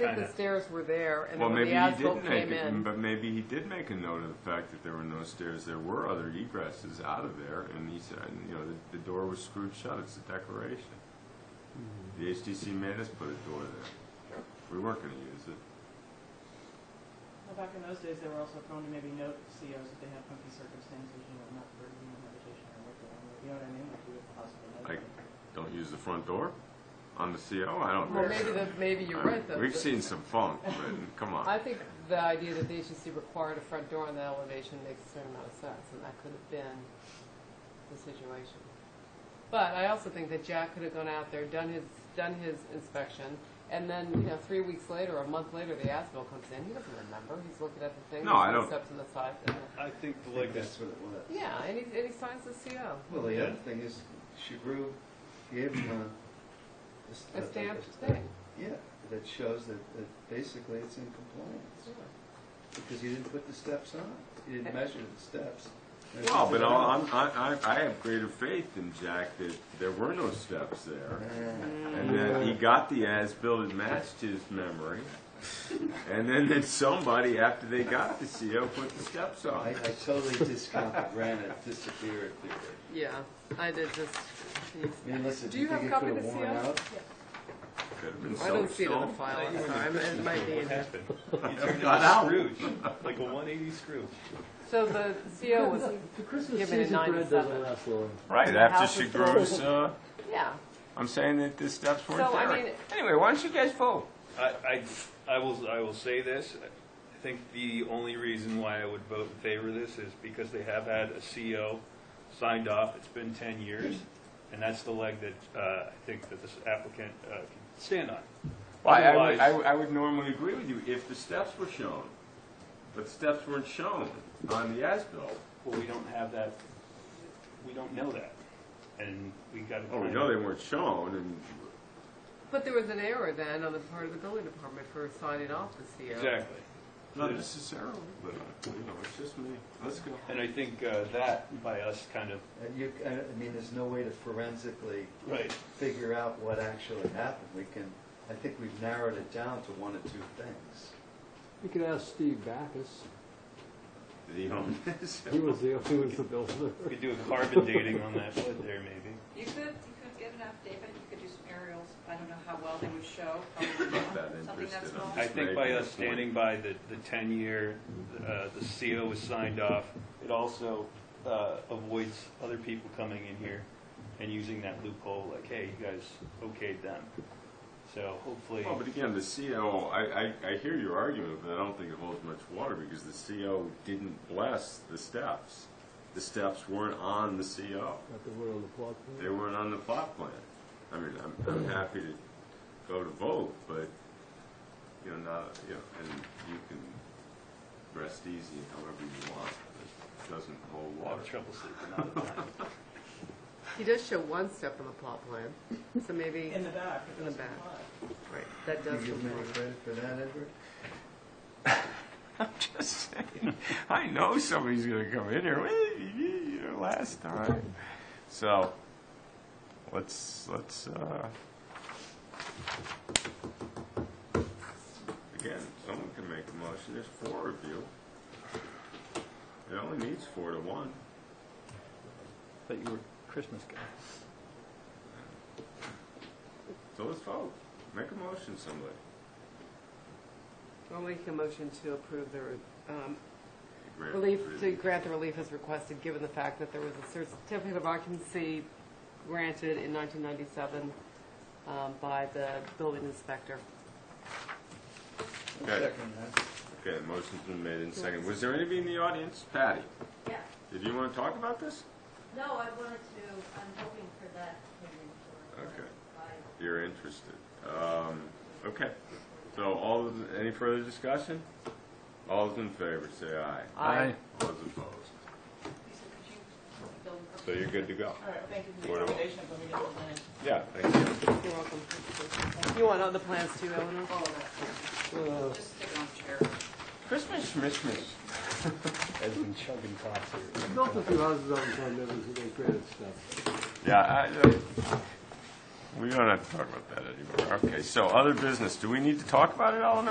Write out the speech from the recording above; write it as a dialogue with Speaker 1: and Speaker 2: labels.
Speaker 1: think the
Speaker 2: kinda-
Speaker 1: stairs were there, and
Speaker 3: Well,
Speaker 1: then when
Speaker 3: maybe
Speaker 1: the
Speaker 3: he
Speaker 1: asphalt
Speaker 3: did make
Speaker 1: came
Speaker 3: it,
Speaker 1: in.
Speaker 3: but maybe he did make a note of the fact that there were no stairs. There were other egresses out of there, and he said, and, you know, the, the door was screwed shut. It's a declaration. The HTC made us put a door there. We weren't going to use it.
Speaker 4: Well, back in those days, they were also prone to maybe note COs if they had funky circumstances, you know, not for human habitation or what they're, you know what I mean? Like you would possibly know.
Speaker 3: Like, don't use the front door on the CO. I don't.
Speaker 1: Well,
Speaker 3: think
Speaker 1: maybe
Speaker 3: so.
Speaker 1: the, maybe you're
Speaker 3: I-
Speaker 1: right, though.
Speaker 3: We've
Speaker 1: but
Speaker 3: seen some funk, but come on.
Speaker 1: I think the idea that the agency required a front door on that elevation makes a certain amount of sense, and that could have been the situation. But I also think that Jack could have gone out there, done his, done his inspection, and then, you know, three weeks later, or a month later, the ASBIL comes in, he doesn't remember, he's looking at the thing,
Speaker 3: No, I
Speaker 1: there's
Speaker 3: don't-
Speaker 1: steps in the side, and,
Speaker 5: I think the
Speaker 2: Like
Speaker 5: latest,
Speaker 2: that's what it was.
Speaker 1: yeah, and he, and he signs the CO.
Speaker 2: Well, the other thing is, she grew, gave him a- a.
Speaker 1: A
Speaker 2: st-
Speaker 1: stamped
Speaker 2: a-
Speaker 1: thing.
Speaker 2: Yeah, that shows that, that basically it's in compliance, because you didn't put the steps on, you didn't measure the steps. And
Speaker 3: Well,
Speaker 2: it's
Speaker 3: but
Speaker 2: just-
Speaker 3: all, I'm, I, I, I have greater faith than Jack that there were no steps there.
Speaker 2: Ah,
Speaker 3: And then he got the as-built and matched his memory. And then, then somebody, after they got the CO, put the steps
Speaker 2: I, I
Speaker 3: on.
Speaker 2: totally discount the granite disappeared theory.
Speaker 1: Yeah, I did just,
Speaker 2: I mean, listen,
Speaker 1: Do
Speaker 2: do you
Speaker 1: you have
Speaker 2: think it
Speaker 1: copy
Speaker 2: could
Speaker 1: of
Speaker 2: have
Speaker 1: the
Speaker 2: worn
Speaker 1: CO?
Speaker 2: out?
Speaker 3: Could have been
Speaker 1: I don't
Speaker 3: so-
Speaker 1: see it in the
Speaker 3: so-
Speaker 1: file, I'm sorry, I'm- it might be in here.
Speaker 5: what happened? You turned
Speaker 3: Got out.
Speaker 5: into Scrooge, like a 180 Scrooge.
Speaker 1: So the CO was,
Speaker 6: The Christmas
Speaker 1: given in
Speaker 6: season bread
Speaker 1: 97.
Speaker 6: doesn't last long.
Speaker 3: Right,
Speaker 1: House
Speaker 3: after she
Speaker 1: is
Speaker 3: grows, uh,
Speaker 1: yeah,
Speaker 3: I'm saying that the steps weren't
Speaker 1: So, I mean-
Speaker 3: there. Anyway, why don't you guys vote?
Speaker 5: I, I, I will, I will say this, I think the only reason why I would vote in favor of this is because they have had a CO signed off, it's been ten years, and that's the leg that, uh, I think that this applicant, uh, can stand on.
Speaker 3: Well, I- I would,
Speaker 5: Otherwise-
Speaker 3: I would- I would normally agree with you if the steps were shown. But steps weren't shown on the as-built.
Speaker 5: Well, we don't have that, we don't know that, and we gotta.
Speaker 3: Oh, we know they weren't shown, and
Speaker 1: But there was an error then on the part of the building department for signing off the CO.
Speaker 5: Exactly.
Speaker 3: Not
Speaker 5: Yeah.
Speaker 3: necessarily, but, you know, it's just me. Let's go.
Speaker 5: And I think uh, that by us kind of
Speaker 2: And uh, you, I I mean, there's no way to forensically
Speaker 5: right.
Speaker 2: figure out what actually happened. We can, I think we've narrowed it down to one or two things.
Speaker 6: You could ask Steve Backus.
Speaker 3: Did he own this?
Speaker 6: He was the, he was the builder.
Speaker 5: We could do a carbon dating on that wood there, maybe.
Speaker 7: You could, you could get an affidavit, you could do some aerials, I don't know how well they would show,
Speaker 8: um,
Speaker 7: probably
Speaker 3: Not that
Speaker 7: something
Speaker 3: interested,
Speaker 7: that's small.
Speaker 3: I'm
Speaker 5: I think by us standing by the, the 10 year, uh, the CO was signed off. It also uh, avoids other people coming in here and using that loophole, like, hey, you guys okayed them. So hopefully,
Speaker 3: Well, but again, the CO, I, I, I hear your argument, but I don't think it holds much water because the CO didn't bless the steps. The steps weren't on the CO.
Speaker 6: Got the wood on the plot plan.
Speaker 3: They weren't on the plot plan. I mean, I'm, I'm happy to go to vote, but, you know, not, you know, and you can rest easy however you want, but it doesn't hold
Speaker 5: I'll
Speaker 3: water.
Speaker 5: have trouble sleeping all the time.
Speaker 1: He does show one step on the plot plan, so maybe,
Speaker 4: In the back. it
Speaker 1: In the
Speaker 4: doesn't
Speaker 1: back.
Speaker 4: apply.
Speaker 1: right, that
Speaker 2: You
Speaker 1: does
Speaker 2: give me any
Speaker 1: comply.
Speaker 2: credit for that, Edward?
Speaker 3: I'm just saying. I know somebody's going to come in here. "Well, you know, last time, so let's let's uh, again. Someone can make a motion. There's four of you. It only needs four to one.
Speaker 9: That you were Christmas guy.
Speaker 3: So let's vote. Make a motion, somebody.
Speaker 1: I'll make a motion to approve the um,
Speaker 3: Grant-
Speaker 1: relief, to grant the relief as requested, given the fact that there was a certificate of occupancy granted in 1997 um, by the building inspector.
Speaker 3: Okay.
Speaker 2: Second, huh?
Speaker 3: Okay. Motion's been made in second. Was there anybody in the audience? Patty,
Speaker 8: Yeah,
Speaker 3: did you want to talk about this?
Speaker 8: no, I wanted to, I'm hoping for that opinion for.
Speaker 3: Okay.
Speaker 8: by-
Speaker 3: you're interested. Um, okay. So all those, any further discussion? All those in favor, say aye.
Speaker 1: I-
Speaker 3: All those opposed.
Speaker 7: Lisa, could you build a-
Speaker 3: So you're good to go.
Speaker 4: All right, thank you for the
Speaker 3: Whatever.
Speaker 4: accommodation, but we didn't have any.
Speaker 3: Yeah, thank you.
Speaker 1: You're welcome. You want all the plans too, Eleanor?
Speaker 7: All of that. Just sit on a chair.
Speaker 3: Christmas, Christmas.
Speaker 9: Has been chugging coffee.
Speaker 6: Built a few houses on San Diego, so they created stuff.
Speaker 3: Yeah, I, uh, We don't have to talk about that anymore. Okay, so other business, do we need to talk about it, Eleanor?